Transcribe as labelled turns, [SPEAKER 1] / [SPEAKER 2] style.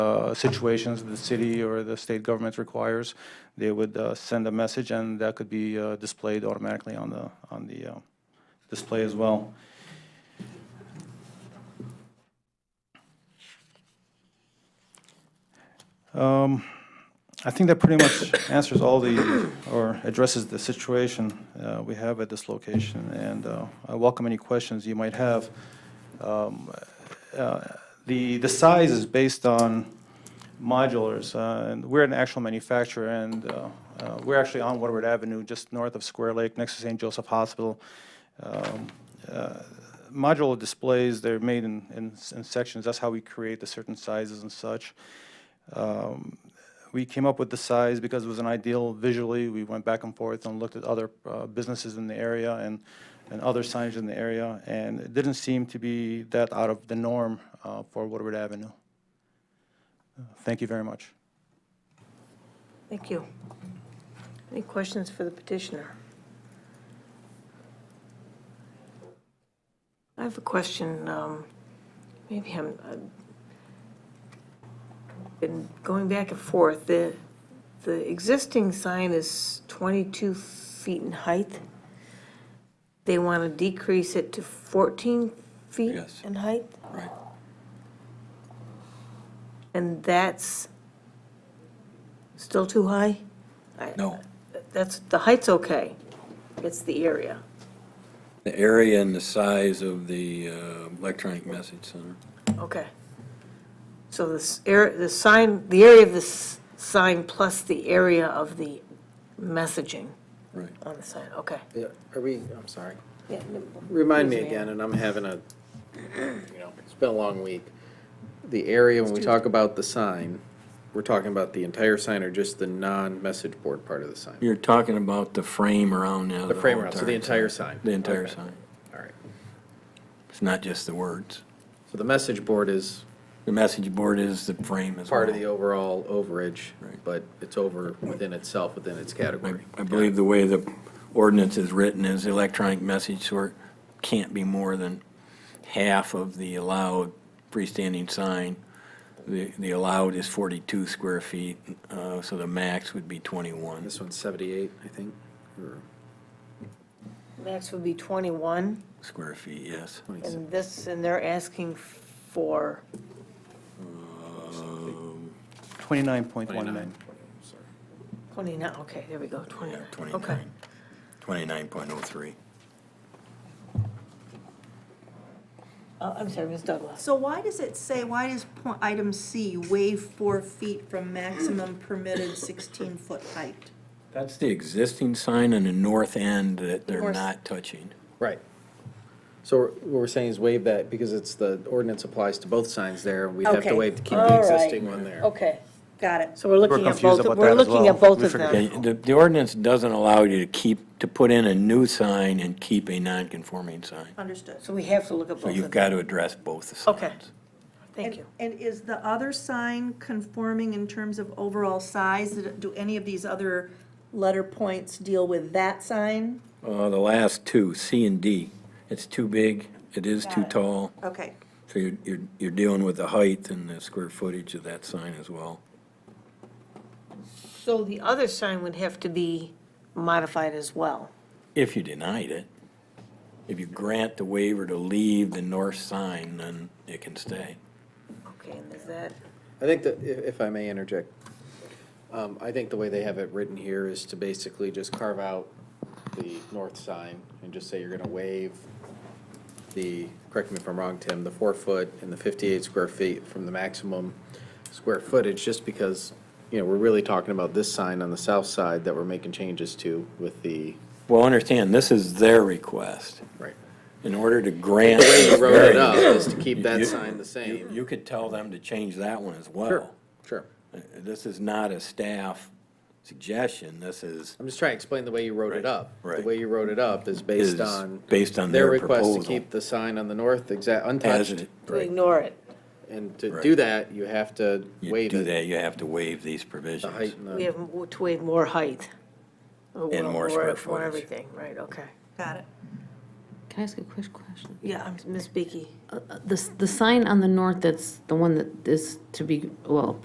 [SPEAKER 1] uh, situations the city or the state government requires, they would uh, send a message, and that could be uh, displayed automatically on the, on the uh, display as well. Um, I think that pretty much answers all the, or addresses the situation uh, we have at this location, and uh, I welcome any questions you might have. Um, uh, The, the size is based on modulars, uh, and we're an actual manufacturer, and uh, uh, we're actually on Woodward Avenue, just north of Square Lake, next to St. Joseph Hospital. Um, uh, Modular displays, they're made in, in in sections, that's how we create the certain sizes and such. Um, We came up with the size because it was an ideal visually. We went back and forth and looked at other uh, businesses in the area and, and other signs in the area, and it didn't seem to be that out of the norm uh, for Woodward Avenue. Uh, Thank you very much.
[SPEAKER 2] Thank you. Any questions for the petitioner? I have a question, um, maybe I'm, I've been going back and forth. The, the existing sign is 22 feet in height. They want to decrease it to 14 feet
[SPEAKER 3] Yes.
[SPEAKER 2] in height?
[SPEAKER 3] Right.
[SPEAKER 2] And that's still too high? I-
[SPEAKER 3] No.
[SPEAKER 2] That's, the height's okay. It's the area.
[SPEAKER 3] The area and the size of the uh, electronic message center.
[SPEAKER 2] Okay. So this air, the sign, the area of this sign plus the area of the messaging
[SPEAKER 3] Right.
[SPEAKER 2] on the sign, okay.
[SPEAKER 4] Yeah, are we, I'm sorry.
[SPEAKER 2] Yeah, no,
[SPEAKER 4] Remind me
[SPEAKER 2] Please, ma'am.
[SPEAKER 4] again, and I'm having a, you know, it's been a long week. The area, when we talk about the sign, we're talking about the entire sign or just the non-message board part of the sign?
[SPEAKER 3] You're talking about the frame around now.
[SPEAKER 4] The frame around, so the entire sign?
[SPEAKER 3] The entire
[SPEAKER 4] Okay.
[SPEAKER 3] sign.
[SPEAKER 4] All right.
[SPEAKER 3] It's not just the words.
[SPEAKER 4] So the message board is
[SPEAKER 3] The message board is the frame as well.
[SPEAKER 4] part of the overall overage,
[SPEAKER 3] Right.
[SPEAKER 4] but it's over within itself, within its
[SPEAKER 3] I
[SPEAKER 4] category.
[SPEAKER 3] I believe the way the ordinance is written is electronic message sort can't be more than half of the allowed freestanding sign. The, the allowed is 42 square feet, uh, so the max would be 21.
[SPEAKER 4] This one's 78, I think, or
[SPEAKER 2] Max would be 21,
[SPEAKER 3] Square feet, yes.
[SPEAKER 4] 27.
[SPEAKER 2] and this, and they're asking for,
[SPEAKER 1] 29.19.
[SPEAKER 4] 29.
[SPEAKER 2] 29, okay, there we go, 29. Okay.
[SPEAKER 3] 29.03.
[SPEAKER 2] Uh, I'm sorry, Ms. Douglas.
[SPEAKER 5] So why does it say, why does point, item C, waive four feet from maximum permitted sixteen-foot height?
[SPEAKER 3] That's the existing sign on the north end that they're
[SPEAKER 5] North.
[SPEAKER 3] not touching.
[SPEAKER 4] Right. So we're- what we're saying is waive that because it's, the ordinance applies to both signs there. and We'd have to
[SPEAKER 5] Okay.
[SPEAKER 4] waive to keep
[SPEAKER 2] All
[SPEAKER 4] the
[SPEAKER 2] right.
[SPEAKER 4] existing one there.
[SPEAKER 2] Okay,
[SPEAKER 5] Got it.
[SPEAKER 2] so we're looking at
[SPEAKER 1] confused
[SPEAKER 2] both,
[SPEAKER 1] about
[SPEAKER 2] we're
[SPEAKER 1] that as
[SPEAKER 2] looking
[SPEAKER 1] well.
[SPEAKER 2] at both
[SPEAKER 1] We
[SPEAKER 2] of
[SPEAKER 1] forget-
[SPEAKER 2] them.
[SPEAKER 3] Yeah, The, the ordinance doesn't allow you to keep, to put in a new sign and keep a non-conforming sign.
[SPEAKER 5] Understood.
[SPEAKER 2] So we have to look at both
[SPEAKER 3] So
[SPEAKER 2] of them.
[SPEAKER 3] you've got to address both the signs.
[SPEAKER 2] Okay. Thank
[SPEAKER 5] And-
[SPEAKER 2] you.
[SPEAKER 5] And is the other sign conforming in terms of overall size? Did it- Do any of these other letter points deal with that sign?
[SPEAKER 3] Uh, the last two, C and D, it's too big, it is
[SPEAKER 5] Got
[SPEAKER 3] too
[SPEAKER 5] it.
[SPEAKER 3] tall,
[SPEAKER 5] Okay,
[SPEAKER 3] so you're, you're, you're dealing with the height and the square footage of that sign as well.
[SPEAKER 2] So the other sign would have to be modified as well.
[SPEAKER 3] If you denied it, if you grant the waiver to leave the north sign, then it can stay.
[SPEAKER 2] Okay, and is that,
[SPEAKER 4] I think that, i- if I may interject, um, I think the way they have it written here is to basically just carve out the north sign and just say you're going to waive the, correct me if I'm wrong, Tim, the four foot and the 58 square feet from the maximum square footage, just because, you know, we're really talking about this sign on the south side that we're making changes to with the,
[SPEAKER 3] Well, understand, this is their request.
[SPEAKER 4] right.
[SPEAKER 3] In order to grant.
[SPEAKER 4] way you wrote it up
[SPEAKER 3] variance,
[SPEAKER 4] is to keep that
[SPEAKER 3] you-
[SPEAKER 4] sign the
[SPEAKER 3] You
[SPEAKER 4] same.
[SPEAKER 3] you could tell them to change that one as well.
[SPEAKER 4] Sure.
[SPEAKER 3] Uh, This is not a staff suggestion, this is,
[SPEAKER 4] I'm just trying to explain the way you wrote
[SPEAKER 3] Right,
[SPEAKER 4] it up. The
[SPEAKER 3] right.
[SPEAKER 4] way you wrote it up is based
[SPEAKER 3] Is
[SPEAKER 4] on.
[SPEAKER 3] based on their
[SPEAKER 4] request to
[SPEAKER 3] proposal.
[SPEAKER 4] keep the sign on the north exact,
[SPEAKER 3] as,
[SPEAKER 4] untouched.
[SPEAKER 3] it-
[SPEAKER 2] to ignore it.
[SPEAKER 4] And to
[SPEAKER 3] Right.
[SPEAKER 4] do that, you have to
[SPEAKER 3] you
[SPEAKER 4] waive
[SPEAKER 3] do
[SPEAKER 4] it,
[SPEAKER 3] that, you have to waive these
[SPEAKER 4] the height
[SPEAKER 3] provisions.
[SPEAKER 4] and
[SPEAKER 2] We
[SPEAKER 4] the,
[SPEAKER 2] have mo- to waive more height. Oh,
[SPEAKER 3] And
[SPEAKER 2] well,
[SPEAKER 3] more
[SPEAKER 2] for-
[SPEAKER 3] square
[SPEAKER 2] For
[SPEAKER 3] footage.
[SPEAKER 2] everything, right, okay.
[SPEAKER 5] got it.
[SPEAKER 6] Can I ask a quick question?
[SPEAKER 2] Yeah, I'm- Ms. Beaky.
[SPEAKER 6] The, the sign on the north, that's the one that is to be, well,